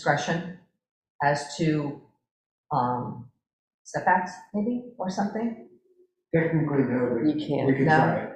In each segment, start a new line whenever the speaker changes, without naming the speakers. discretion as to um, setbacks, maybe, or something?
Technically, no, but
You can't.
we can
No.
try it.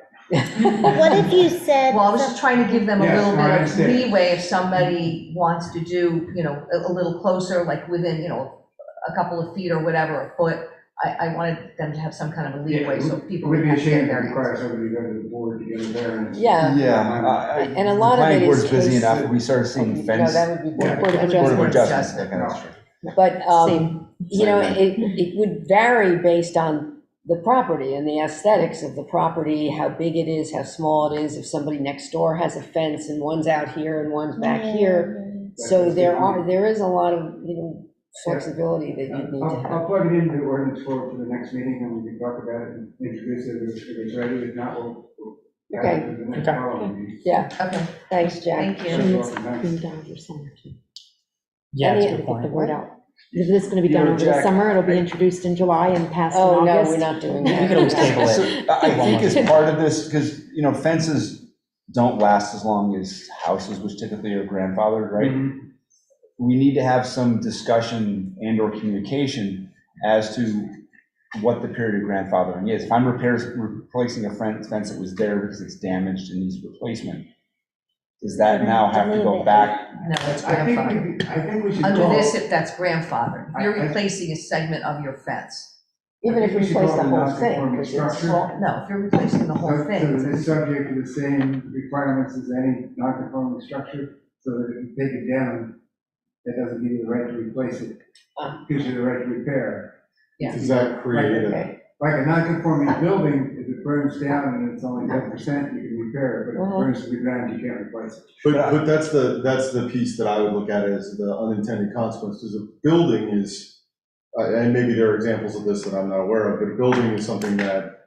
But what if you said,
Well, I was just trying to give them a
Yes,
little
no, I
bit of
understand.
leeway if somebody wants to do, you know, a, a little closer, like within, you know, a couple of feet or whatever, a foot. I, I wanted them to have some kind of a
Yeah,
leeway,
it
so
It
people
would
would
be
have
a
to get
shame to
their
require somebody to go to the board to get a variance.
Yeah.
Yeah.
Um, And a lot of it is
Planning board's busy
case-
enough, if we start
No,
seeing fence,
that would be
Yeah.
Board of
Board of
Adjustment.
Adjustment, that kind of stuff.
But,
Same.
um, you know,
Same
it, it would vary based on the property and the aesthetics of the property, how big it is, how small it is, if somebody next door has a fence and one's out here and one's back here. So there are, there is a lot of, you know, flexibility that you need to
I'll,
have.
I'll plug it into ordinance four for the next meeting, and we can talk about it and introduce it if if it's ready, if not, we'll. we'll add it to the next
Okay.
following meeting.
Yeah,
Okay,
thanks,
thank
Jack.
So
you.
you're welcome, thanks.
Being done over summer too.
Yeah, that's a
Any-
good
get The
point.
word out. If this is gonna be
You
done
know,
over the
Jack,
summer, it'll be
I-
introduced in July and passed in
Oh, no,
August.
we're not doing
We can always
that.
table it. I I think as part of this, because, you know, fences don't last as long as houses, which typically are grandfathered, right?
Mhm.
We need to have some discussion and or communication as to what the period of grandfathering is. If I'm repairs, replacing a fence fence that was there because it's damaged and needs replacement, does that now have to go back?
No, it's
I think,
grandfathered.
we- I think we should.
Under
call-
this, if that's grandfathered,
I-
you're
I-
replacing a segment of your fence.
Even if
I think we
we
should
replace
call
the
it a
whole thing,
non-conforming
because it's
structure.
small.
No, if you're replacing the whole
So
thing,
it's subject to the same requirements as any non-conforming structure, so that if you take it down, that doesn't give you the right to replace it.
Ah.
Gives you the right to repair.
Yeah.
Does that create a,
Okay.
Like a non-conforming building, if it burns down and it's only ten percent, you can repair it, but if it
Mhm.
burns to the ground, you can't replace it.
but, but that's the, that's the piece that I would look at as the unintended consequences. A building is, uh, and maybe there are examples of this that I'm not aware of, but a building is something that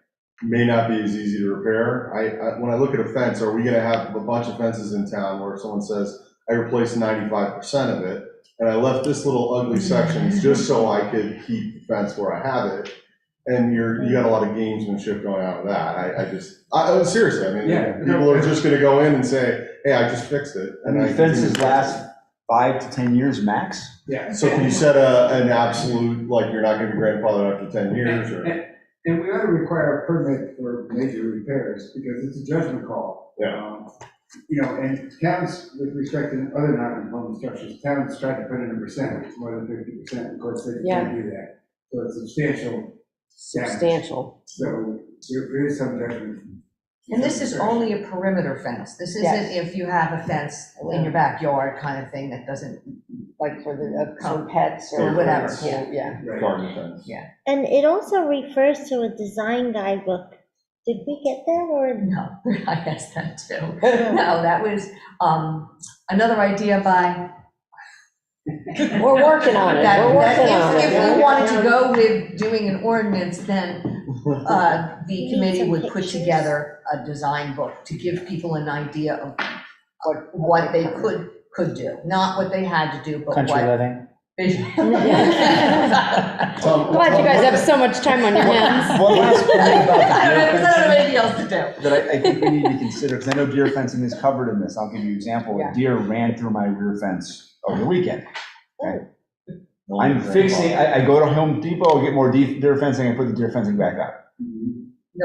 may not be as easy to repair. I, I, when I look at a fence, are we gonna have a bunch of fences in town where someone says, I replaced ninety-five percent of it, and I left this little ugly section just so I could keep the fence where I have it? And you're, you got a lot of gamesmanship going on with that. I, I just, I, I- seriously, I
Yeah.
mean, people are just gonna go in and say, hey, I just fixed it.
I mean, fences last five to 10 years max?
Yeah.
So can you set a, an absolute, like, you're not gonna be grandfathered after ten years,
And-
or?
and- And we ought to require a permit for major repairs, because it's a judgment call.
Yeah.
Um, You know, and towns, with respect to other non-conforming structures, towns try to put in a percent, it's more than fifty percent, of course, they can't do that. So it's substantial,
Substantial.
so there there is some judgment.
and this is only a perimeter fence. This isn't
Yes.
if you have a fence in your backyard kind of thing that doesn't,
like for the, uh, for pets or
Or
whatever,
pets.
yeah, yeah.
Right.
Garden fence.
And it also refers to a design guidebook. Did we get that or?
no, I asked that too. No, that was, um, another idea by,
We're working on it,
that,
we're working
that
on
if, if we
it.
wanted to go with doing an ordinance, then, uh, the
Need
committee
some
would put
pictures.
together a design book to give people an idea of what, what they could, could do, not what they had to do, but what.
Country living.
Tom,
Glad you guys
Tom,
have so much time on your hands.
One last point about
I don't
the deer
know, 'cause I don't have
fencing
anything else to do.
that I, I think we need to consider, because I know deer fencing is covered in this. I'll give you an example.
Yeah.
A deer ran through my rear fence over the weekend.
what-
I'm fixing, I, I go to Home Depot, get more de- deer fencing, I put the deer fencing back up.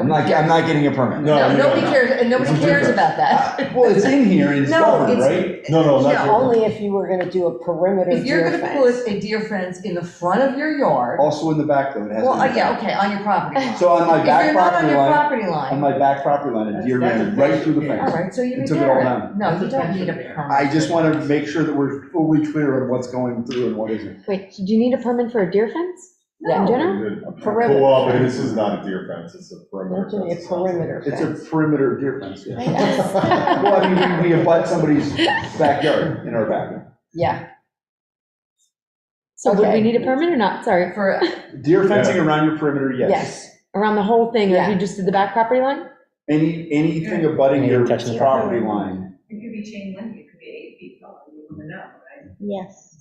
I'm not, I'm not getting a permit.
No,
No,
no,
nobody
no.
cares, and nobody
It's a
cares about
difference.
that.
Uh, Well, it's in here and it's
No,
covered,
it's-
right?
No, no,
Yeah,
not
Only if you were gonna do a perimeter
If you're
deer
gonna put
fence.
a deer fence in the front of your yard,
Also in the back though, Oh, it has.
well,
to be-
uh, yeah, okay, on your property line.
So on my
If you're not on
back property
your
line,
property
on
line,
my back property line, a deer ran right through the
all
fence.
right, so you
It
can
took it
tear
all
it.
down.
No, you don't need a permit.
I just want to make sure that we're fully clear on what's going through and what isn't.
Wait, do you need a permit for a deer fence?
Yeah.
In general?
perimeter.
Well, but this is not a deer fence, it's a perimeter
That's only a
fence.
perimeter
It's
fence.
a perimeter deer fence, yeah.
Yes.
Well, I mean, we, we abut somebody's backyard in our backyard.
Yeah,
So would
Okay.
we need a permit or not? Sorry,
For,
Deer fencing around your perimeter, yes.
yes.
around the whole thing, or if
Yeah.
you just did the back property line?
Any, anything abutting your
Touching the
property line.
It could be chain link, it could be eight feet tall, you don't know, right?
Yes.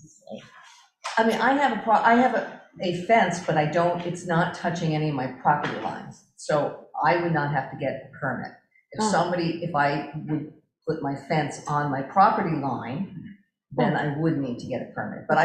I mean, I have a pro, I have a, a fence, but I don't, it's not touching any of my property lines. So I would not have to get a permit. If
Oh.
somebody, if I would put my fence on my property line, then I would need to get a permit. But